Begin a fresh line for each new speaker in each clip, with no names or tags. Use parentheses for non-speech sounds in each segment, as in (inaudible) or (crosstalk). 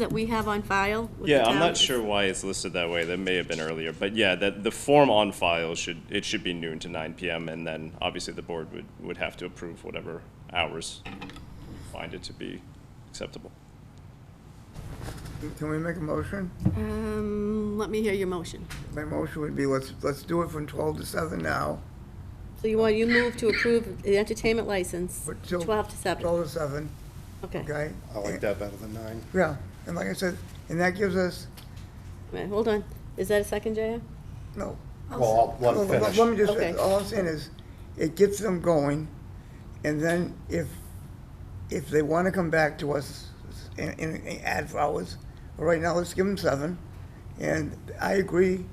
that we have on file? with the
Yeah, I'm
town?
not sure why it's listed that way. That may have been earlier, but yeah, that the form on file should, it should be noon to nine PM, and then obviously the board would, would have to approve whatever hours you find it to be acceptable.
Can we make a motion?
Um, let me hear your motion.
My motion would be, let's, let's do it from 12 to 7 now.
So you want, you move to approve the entertainment license,
but till-
12 to 7,
12 to 7,
okay.
okay?
I like that better than nine.
Yeah, and like I said, and that gives us,
Wait, Hold on, is that a second, JR?
no,
Well, I'll let
Well,
him
Let
finish.
let me just,
Okay.
all I'm saying is, it gets them going, and then if, if they want to come back to us and, and and add flowers, right now, let's give them seven. And I agree,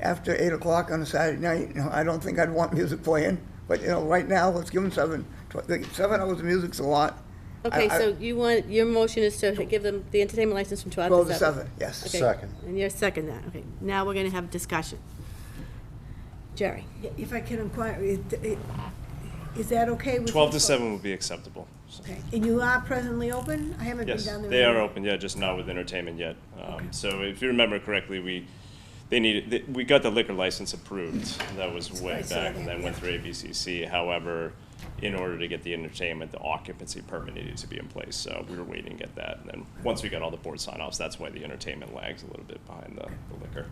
after eight o'clock on a Saturday night, you know, I don't think I'd want music playing, but, you know, right now, let's give them seven. Tw- like, Seven hours of music's a lot. I-
Okay,
I-
so you want, your motion is to give them the entertainment license from 12 to 7?
Twelve to seven, yes.
Okay,
Second.
And you're second that, okay. Now we're gonna have discussion. Jerry?
If I can inquire, is it- is that okay with?
Twelve to
you?
seven would be acceptable. so-
Okay. And you are presently open? I haven't been
Yes,
down there.
they
in a
are
while.
open, yeah, just not with entertainment yet. Um, So if you remember correctly, we, they needed, th- we got the liquor license approved, that was way
I saw
back, and
that,
then went through ABCC. However, in order to get the entertainment, the occupancy permit needed to be in place, so we were waiting to get that. And then, once we got all the board sign-offs, that's why the entertainment lags a little bit behind the the liquor.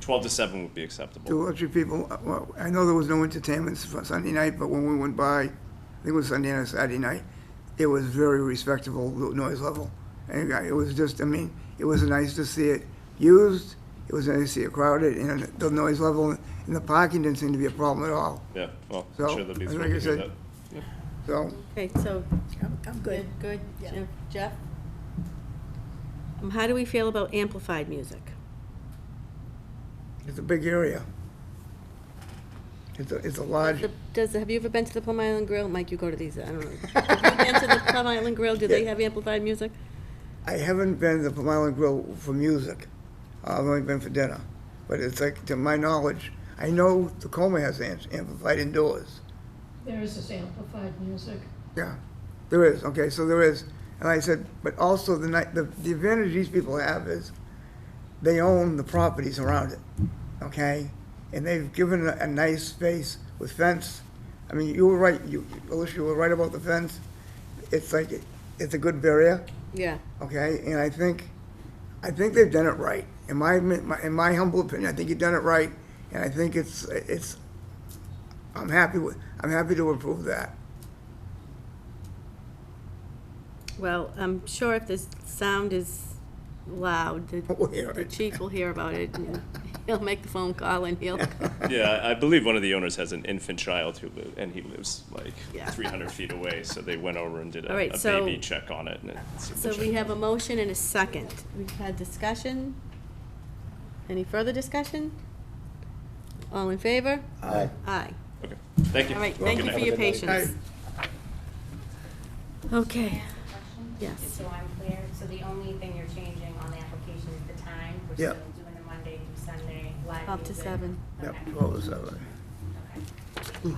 Twelve to seven would be
Two
acceptable.
or three people, uh, well, I know there was no entertainment for Sunday night, but when we went by, I think it was Sunday night, Saturday night, it was very respectable lo- noise level. And I- it was just, I mean, it was nice to see it used, it was nice to see it crowded, and the noise level in the parking didn't seem to be a problem at all.
Yeah, well, I'm
So,
sure there'll be
like
three
I
to do
said-
that.
So,
Okay, so,
I'm- I'm
good,
good.
good. Jeff- Jeff? Um, How do we feel about amplified music?
it's a big area. It's a, it's a large,
The- Does, have you ever been to the Plum Island Grill? Mike, you go to these, I
(laughs)
don't know. Have you been to the Plum Island Grill? Do they
Yeah.
have amplified music?
I haven't been to Plum Island Grill for music. I've only been for dinner. But it's like, to my knowledge, I know Tacoma has am- amplified indoors.
There is this amplified music.
Yeah, there is, okay, so there is. And I said, but also the night, the, the advantage these people have is they own the properties around it, okay? And they've given a, a nice space with fence. I mean, you were right, you, Alicia, you were right about the fence. It's like, it's a good barrier.
Yeah.
okay? And I think, I think they've done it right. In my, my- in my humble opinion, I think you've done it right, and I think it's, it's, I'm happy with, I'm happy to approve that.
Well, I'm sure if this sound is loud, the
Oh,
We'll hear
the
it.
chief will hear about it, and (laughs) he'll make the phone call, and
(laughs)
he'll, (laughs)
Yeah, I I believe one of the owners has an infant child who lives, and he lives
Yeah.
like three hundred feet away, so they went over and did
All
a,
right,
a
so-
baby check on it and it.
So we have a motion and a second. We've had discussion. Any further discussion? All in favor?
Aye.
Aye.
Okay, thank you.
All right,
Good
thank you
night.
for your
Have a good night.
patience. Okay.
question?
Yes.
Just so I'm clear, so the only thing you're changing on the application is the time? We're
Yeah.
still doing the Monday through Sunday live music?
Up to seven.
(laughs) Yep,
Okay,
twelve to seven.
okay.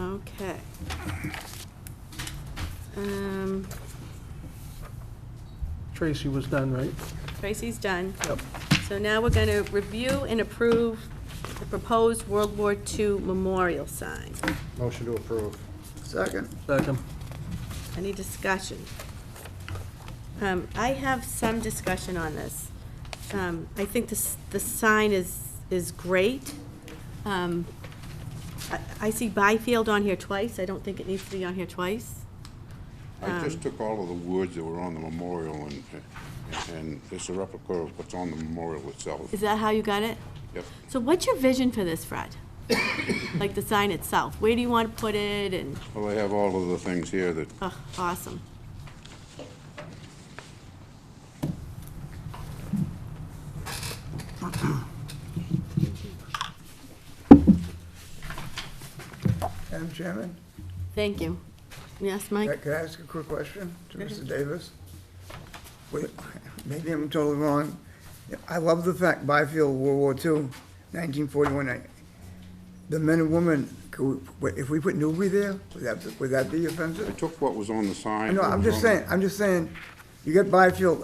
Okay. Um,
Tracy was done, right?
Tracy's done.
Yep.
So now we're going to review and approve the proposed World War II memorial sign.
Motion to approve.
Second, (clears throat)
Second.
Any discussion? Um, I have some discussion on this. Um, I think this, the sign is, is great. Um, I, I see Byfield on here twice. I don't think it needs to be on here twice.
I
Um,
just took all of the words that were on the memorial and, and it's a replica of what's on the memorial itself.
Is that how you got it?
Yep.
So what's your vision for this, Fred? Like the sign itself? Where do you want to put it and,
Well, I have all of the things here that,
oh, awesome.
Madam Chairman,
Thank you. Yes, Mike?
can I ask a quick question to Mr. Davis? Wait, (laughs) Maybe I'm totally wrong. I love the fact Byfield, World War II, 1941. I- The men and women, could we- if we put Newbury there, would that, would that be offensive?
I took what was on the sign.
No,
what
I'm
was
just
on the-
saying, I'm just saying, You get biofuel,